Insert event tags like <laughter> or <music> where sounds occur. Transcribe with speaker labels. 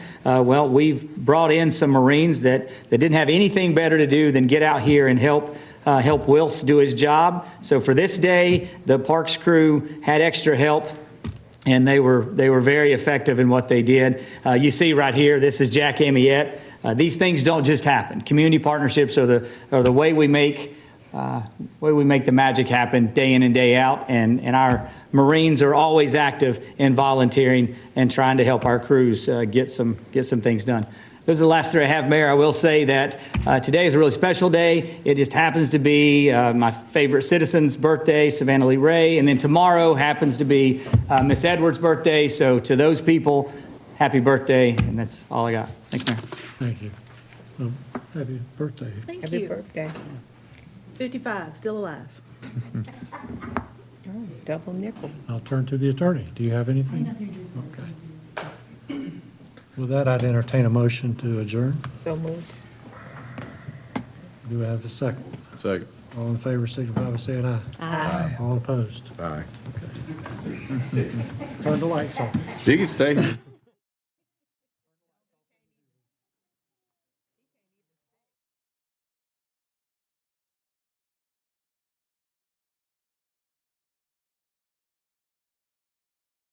Speaker 1: uh, well, we've brought in some Marines that, that didn't have anything better to do than get out here and help, uh, help Wills do his job. So for this day, the Parks crew had extra help and they were they were very effective in what they did. Uh, you see right here, this is Jack Amiette. Uh, these things don't just happen. Community partnerships are the are the way we make uh, way we make the magic happen day in and day out. And and our Marines are always active in volunteering and trying to help our crews uh, get some get some things done. Those are the last three I have, Mayor. I will say that uh, today is a really special day. It just happens to be uh, my favorite citizen's birthday, Savannah Lee Ray, and then tomorrow happens to be uh, Miss Edwards' birthday. So to those people, happy birthday, and that's all I got. Thanks, Mayor.
Speaker 2: Thank you. Um, Happy birthday.
Speaker 3: Thank
Speaker 4: Happy
Speaker 3: you.
Speaker 4: birthday.
Speaker 3: 55, still alive.
Speaker 4: Double nickel.
Speaker 2: I'll turn to the attorney. Do you have anything? Okay. With that, I'd entertain a motion to adjourn.
Speaker 4: So moved.
Speaker 2: Do I have a second?
Speaker 5: Second.
Speaker 2: All in favor, signify by saying aye. Aye. All opposed.
Speaker 5: All right.
Speaker 2: <laughs> Turn the lights off.
Speaker 5: You can stay.